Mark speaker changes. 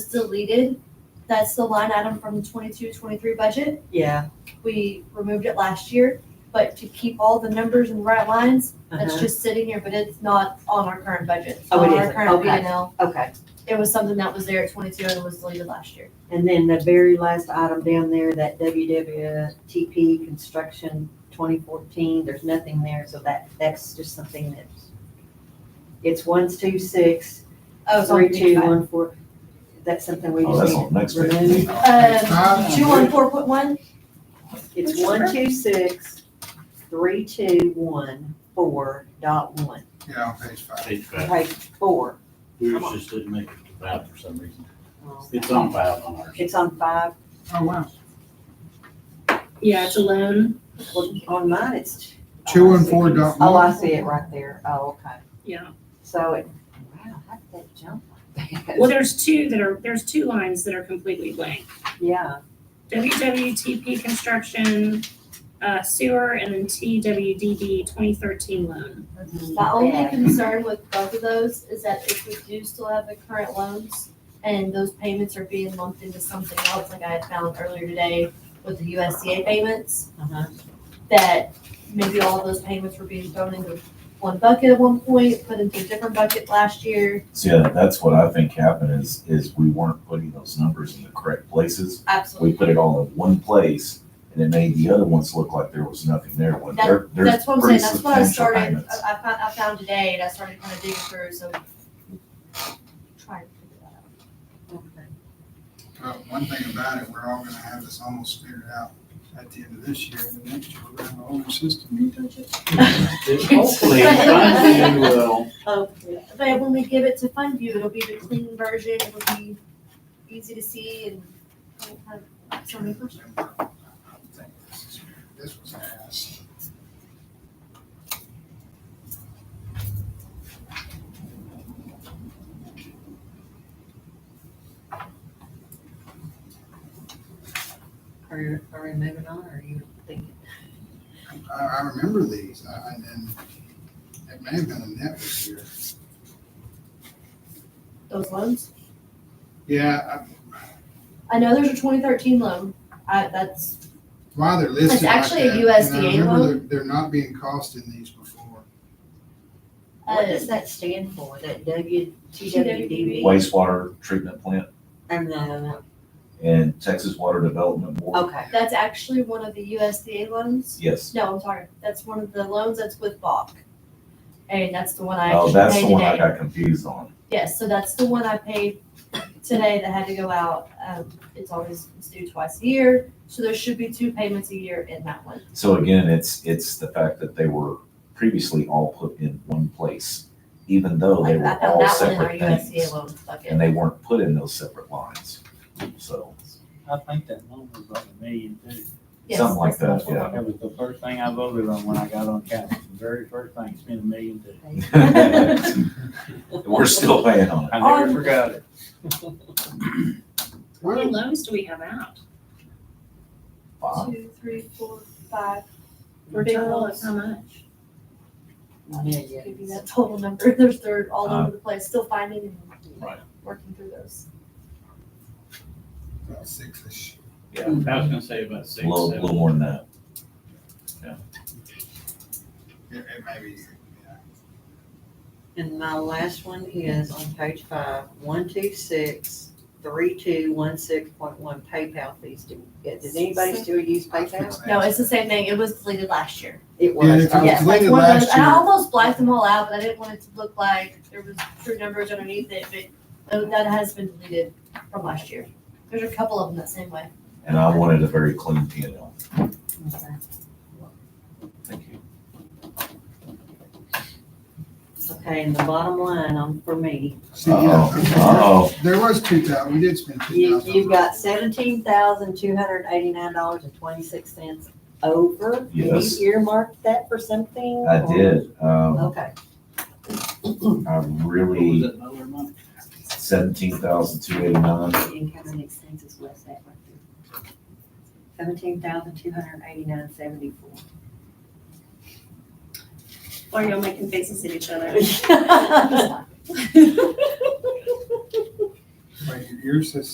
Speaker 1: is deleted. That's the line item from the 22-23 budget.
Speaker 2: Yeah.
Speaker 1: We removed it last year, but to keep all the numbers in the right lines, that's
Speaker 2: uh-huh.
Speaker 1: just sitting here, but it's not on our current budget. It's
Speaker 2: Oh, it
Speaker 1: not on our
Speaker 2: isn't.
Speaker 1: current
Speaker 2: Okay.
Speaker 1: P&L.
Speaker 2: Okay.
Speaker 1: It was something that was there at twenty-two and it was deleted last year.
Speaker 2: And then the very last item down there, that WWTP construction twenty fourteen, there's nothing there, so that, that's just something that's. It's ones, two, six,
Speaker 1: Oh, it's on
Speaker 2: three, two,
Speaker 1: 25.
Speaker 2: one, four. That's something we
Speaker 3: Oh, that's
Speaker 2: just
Speaker 3: on the next
Speaker 2: need to remove.
Speaker 3: page.
Speaker 1: Um, two one four point one,
Speaker 2: It's
Speaker 4: Which
Speaker 2: one,
Speaker 4: one?
Speaker 2: two, six, three, two, one, four, dot one,
Speaker 4: Yeah, on page five.
Speaker 5: It's bad.
Speaker 2: page four.
Speaker 5: Yours just didn't make it to five for some reason.
Speaker 2: Um,
Speaker 5: It's on five on ours.
Speaker 2: It's on five,
Speaker 4: Oh, wow.
Speaker 6: Yeah, it's a loan.
Speaker 2: Well, on mine, it's. t- oh,
Speaker 4: Two
Speaker 2: I
Speaker 4: and
Speaker 2: see.
Speaker 4: four dot
Speaker 2: Oh,
Speaker 4: one.
Speaker 2: I see it right there, oh, okay.
Speaker 6: Yeah.
Speaker 2: So it, wow, how did that jump like that?
Speaker 6: Well, there's two that are, there's two lines that are completely blank.
Speaker 2: Yeah,
Speaker 6: WWTP construction, uh, sewer, and then TWDB twenty thirteen loan.
Speaker 1: my only
Speaker 2: Yeah.
Speaker 1: concern with both of those is that if we do still have the current loans and those payments are being lumped into something else, like I had found earlier today with the USDA payments,
Speaker 2: uh-huh,
Speaker 1: that maybe all of those payments were being thrown into one bucket at one point, put into a different bucket last year.
Speaker 3: See, uh, that's what I think happened is, is we weren't putting those numbers in the correct places. We
Speaker 1: Absolutely.
Speaker 3: put it all in one place and it made the other ones look like there was nothing there when there, there's
Speaker 1: That's what I'm saying,
Speaker 3: pretty
Speaker 1: that's what I
Speaker 3: substantial
Speaker 1: started,
Speaker 3: payments.
Speaker 1: I, I found, I found today and I started kind of digging through, so trying to figure that out.
Speaker 2: okay.
Speaker 4: Well, one thing about it, we're all gonna have this almost figured out at the end of this year, and the next year, we're gonna have a whole new system.
Speaker 5: Hopefully, fund you will,
Speaker 2: Okay.
Speaker 1: But when we give it to Fund View, it'll be the clean version, it'll be easy to see and we won't have so many questions.
Speaker 4: uh, I think This is- this was asked.
Speaker 2: Are you, are we moving on, or are you thinking?
Speaker 4: I, I remember these, I, and then it may have been a net this year.
Speaker 1: Those loans?
Speaker 4: Yeah, I-
Speaker 1: I know there's a twenty thirteen loan, I, that's,
Speaker 4: why they're listed
Speaker 1: It's
Speaker 4: like
Speaker 1: actually a
Speaker 4: that, and I
Speaker 1: USDA
Speaker 4: remember
Speaker 1: loan.
Speaker 4: they're- They're not being costed in these before.
Speaker 2: What
Speaker 1: uh,
Speaker 2: does that stand for, that W,
Speaker 1: TWDB?
Speaker 2: TWDB?
Speaker 3: Wastewater treatment plant
Speaker 2: I'm not,
Speaker 3: and Texas Water Development Board.
Speaker 2: okay,
Speaker 1: that's actually one of the USDA loans.
Speaker 3: Yes.
Speaker 1: No, I'm sorry, that's one of the loans that's with Bach. And that's the one I
Speaker 3: Oh,
Speaker 1: actually
Speaker 3: that's the
Speaker 1: paid
Speaker 3: one I
Speaker 1: today.
Speaker 3: got confused on.
Speaker 1: Yes, so that's the one I paid today that had to go out, um, it's always, it's due twice a year, so there should be two payments a year in that one.
Speaker 3: So again, it's, it's the fact that they were previously all put in one place, even though
Speaker 1: Like,
Speaker 3: they were
Speaker 1: I found
Speaker 3: all
Speaker 1: that one in our
Speaker 3: separate
Speaker 1: USDA
Speaker 3: things.
Speaker 1: loan bucket.
Speaker 3: And they weren't put in those separate lines. So,
Speaker 7: I think that loan was like a million too.
Speaker 1: Yes,
Speaker 3: something like
Speaker 1: that's
Speaker 3: that,
Speaker 1: the
Speaker 3: yeah.
Speaker 7: That was the first thing I voted on when I got on council, the very first thing, spent a million too.
Speaker 3: And We're still paying on it.
Speaker 7: I never
Speaker 1: On-
Speaker 7: forgot it.
Speaker 6: How many
Speaker 4: Well,
Speaker 6: loans do we have out?
Speaker 3: Bob,
Speaker 1: Two, three, four, five.
Speaker 6: For
Speaker 1: Big
Speaker 6: total of
Speaker 1: loans.
Speaker 6: how much?
Speaker 1: Give you
Speaker 2: millions.
Speaker 1: that total number. There's they're all
Speaker 3: Uh,
Speaker 1: over the place. Still finding and
Speaker 3: Right.
Speaker 1: working through those.
Speaker 4: about six-ish.
Speaker 3: yeah,
Speaker 5: I was gonna say about six,
Speaker 3: a little,
Speaker 5: seven.
Speaker 3: little more than that.
Speaker 4: It, it may be, yeah.
Speaker 2: And my last one is on page five, one, two, six, three, two, one, six, point one, PayPal fees. Do- Does anybody still use PayPal?
Speaker 1: No, it's the same thing. It was deleted last year.
Speaker 2: It
Speaker 4: Yeah,
Speaker 2: was,
Speaker 4: if it was
Speaker 1: Yes,
Speaker 2: okay.
Speaker 1: like
Speaker 4: deleted
Speaker 1: one of those.
Speaker 4: last
Speaker 1: And I
Speaker 4: year.
Speaker 1: almost blacked them all out, but I didn't want it to look like there was true numbers underneath it. But tho- that has been deleted from last year. There's a couple of them that same way.
Speaker 3: And I wanted a very clean P and L. Thank you.
Speaker 2: Okay, and the bottom line on, for me,
Speaker 4: See,
Speaker 3: Uh-oh,
Speaker 4: yeah,
Speaker 3: uh-oh.
Speaker 4: there was two thousand, we did spend two
Speaker 2: you,
Speaker 4: thousand.
Speaker 2: you've got seventeen thousand, two hundred eighty-nine dollars and twenty-six cents over. And
Speaker 3: Yes.
Speaker 2: You earmarked that for something?
Speaker 3: I
Speaker 2: or-
Speaker 3: did. Um,
Speaker 2: Okay,
Speaker 3: I
Speaker 5: What was
Speaker 3: really,
Speaker 5: that dollar amount?
Speaker 3: seventeen thousand two eighty-nine.
Speaker 2: the income and expenses was that right there. Seventeen thousand, two hundred eighty-nine, seventy-four.
Speaker 6: Why are y'all making faces at each other?
Speaker 2: Well,
Speaker 4: Wait, yours says